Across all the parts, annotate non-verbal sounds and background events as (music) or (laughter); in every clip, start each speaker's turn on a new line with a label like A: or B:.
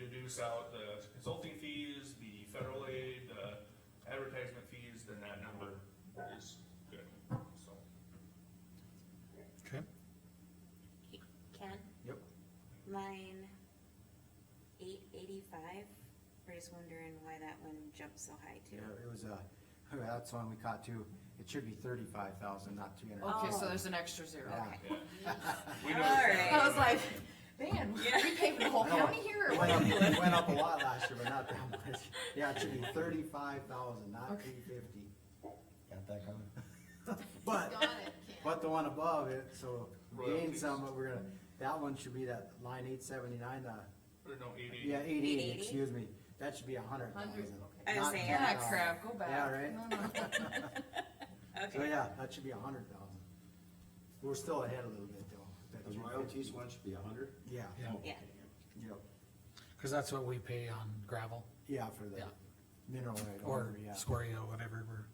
A: reduce out the consulting fees, the federal aid, the advertisement fees, then that number is good, so.
B: Okay.
C: Ken?
B: Yep.
C: Line eight eighty-five, we're just wondering why that one jumped so high too.
D: Yeah, it was a, (laughs) that's one we caught too. It should be thirty-five thousand, not three hundred.
E: Okay, so
C: Oh.
E: there's an extra zero.
D: Yeah.
C: Okay.
A: yeah. We know
C: All
A: it's not-
E: I was like, man, we
C: Yeah.
E: paving the whole county here, or
D: It
E: what
D: went
E: are (laughs)
D: up,
E: we doing?
D: it went up a lot last year, but not that much. Yeah, it should be thirty-five thousand, not
E: Okay.
D: three fifty. Got that coming? But,
F: Got it, Ken.
D: but the one above it, so we gained
A: Royalties.
D: some, but we're gonna, that one should be that line eight seventy-nine, uh,
A: Or no, eight eighty.
D: yeah, eight eighty,
C: 880?
D: excuse me. That should be a hundred
F: Hundred,
D: thousand.
F: okay.
C: I was
D: not
C: saying,
E: Yeah,
D: 10,000.
E: crap, go back.
D: Yeah, right?
E: No, no.
D: So
C: Okay,
D: yeah, that should be a hundred thousand. We're still ahead a little bit though.
G: The royalties one should be a hundred?
D: Yeah,
C: yeah,
D: yep,
B: Cause that's what we pay on gravel
D: yeah, for the
B: Yeah.
D: mineral right
B: or
D: over, Oh, yeah.
B: scoria, whatever we're,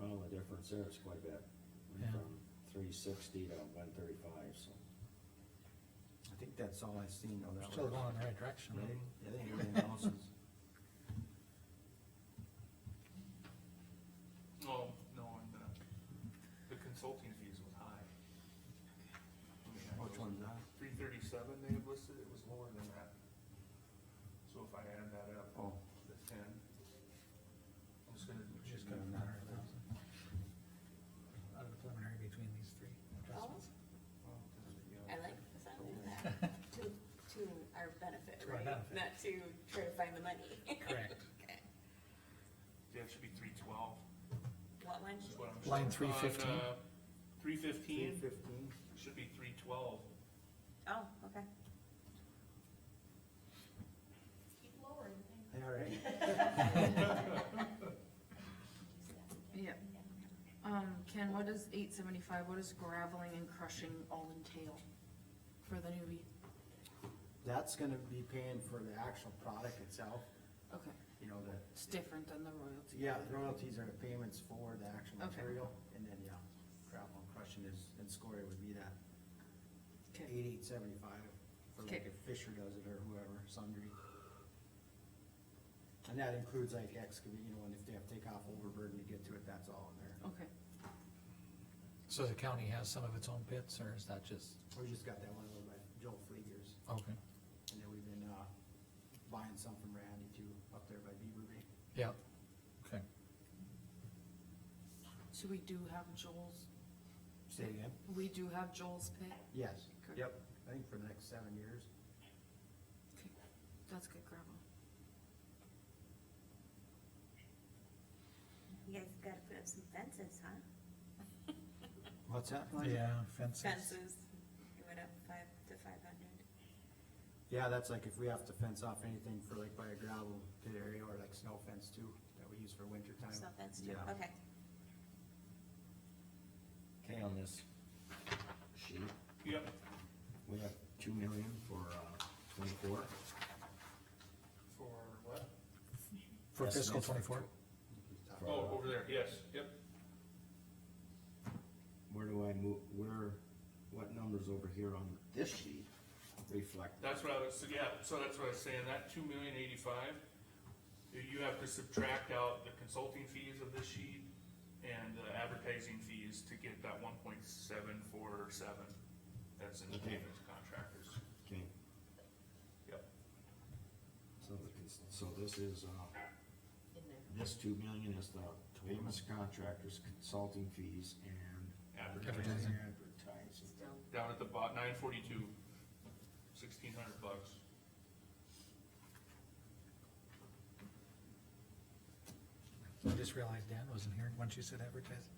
G: Well, the difference there is quite a bit. Went
B: Yeah.
G: From three sixty to one thirty-five, so.
D: I think that's all I've seen though. that
B: still
D: was-
B: going in the right direction.
D: Right? I think everything else is,
A: Oh, no, and uh, the, the consulting fees was high.
D: which one's that?
A: Three thirty-seven they had listed, it was lower than that. So if I add that up,
D: Oh,
A: the ten, I'm just gonna.
B: Just got a hundred thousand. Out of the preliminary between these three adjustments.
C: I like the sound of
B: (laughs)
C: that, to, to our benefit,
B: To our
C: right?
B: benefit.
C: Not to try to find the money. (laughs)
B: Correct.
A: Yeah, it should be three twelve,
C: What one?
A: is what I'm.
B: Line 315?
A: uh, Three
D: three
A: fifteen,
D: fifteen?
A: should be three twelve.
C: Oh, okay.
F: Keep lowering things.
D: Yeah, right.
E: Yeah. Um, Ken, what is eight seventy-five, what does graveling and crushing all entail for the newbie?
D: That's gonna be paying for the actual product itself,
E: Okay,
D: you know, the,
E: it's different than the royalty.
D: yeah, the royalties are the payments for the actual
E: Okay.
D: material. And then, yeah, gravel and crushing is, and scoria would be that
E: Okay,
D: eighty-eight seventy-five, or like
E: Okay.
D: if Fisher does it, or whoever, Sundry. And that includes like excavate, you know, and if they have to take off overburden to get to it, that's all in there.
E: okay,
B: So the county has some of its own pits or is that just,
D: We just got that one over by Joel Fleegers,
B: okay,
D: and then we've been, uh, buying some from Randy too, up there by Beaver Bay.
B: yeah, okay.
E: so we do have Joel's,
D: Say it again?
E: we do have Joel's pit,
D: Yes,
E: Okay.
D: yep, I think for the next seven years.
E: okay, that's good gravel.
C: You guys gotta put up some fences, huh?
D: What's that?
B: Yeah, fences.
C: Fences, it went up five to five hundred.
D: Yeah, that's like if we have to fence off anything for like by a gravel pit area or like snow fence too, that we use for winter time.
C: So that's, true.
D: Yeah.
C: okay.
G: Okay, on this sheet,
A: Yep.
G: we have two million for, uh, twenty-four.
A: Oh, For what?
B: For
G: Yes,
B: fiscal
G: that's right.
B: twenty-four?
G: For, uh,
A: Oh, over there, yes, yep.
G: Where do I move, where, what numbers over here on this sheet reflect?
A: That's what I was, so yeah, so that's what I was saying, that two million eighty-five, you have to subtract out the consulting fees of this sheet and the advertising fees to get that one point seven four seven, that's in the
G: Okay.
A: payments contractors,
G: Okay,
A: yep.
G: so, the cons- so this is, uh,
F: In there.
G: this two million is the famous contractors, consulting fees, and.
A: Advertising.
G: Advertising.
F: Still.
A: Down at the bot, nine forty-two, sixteen hundred bucks.
B: I just realized Dan wasn't here once you said advertising.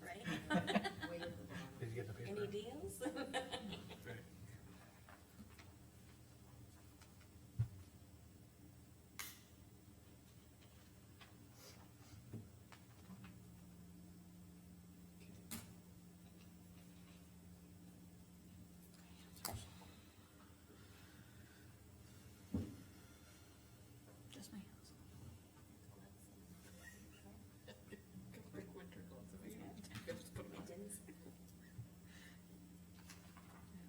C: Right? (laughs)
F: Way at the bottom.
B: Did you get the paper?
C: Any deals?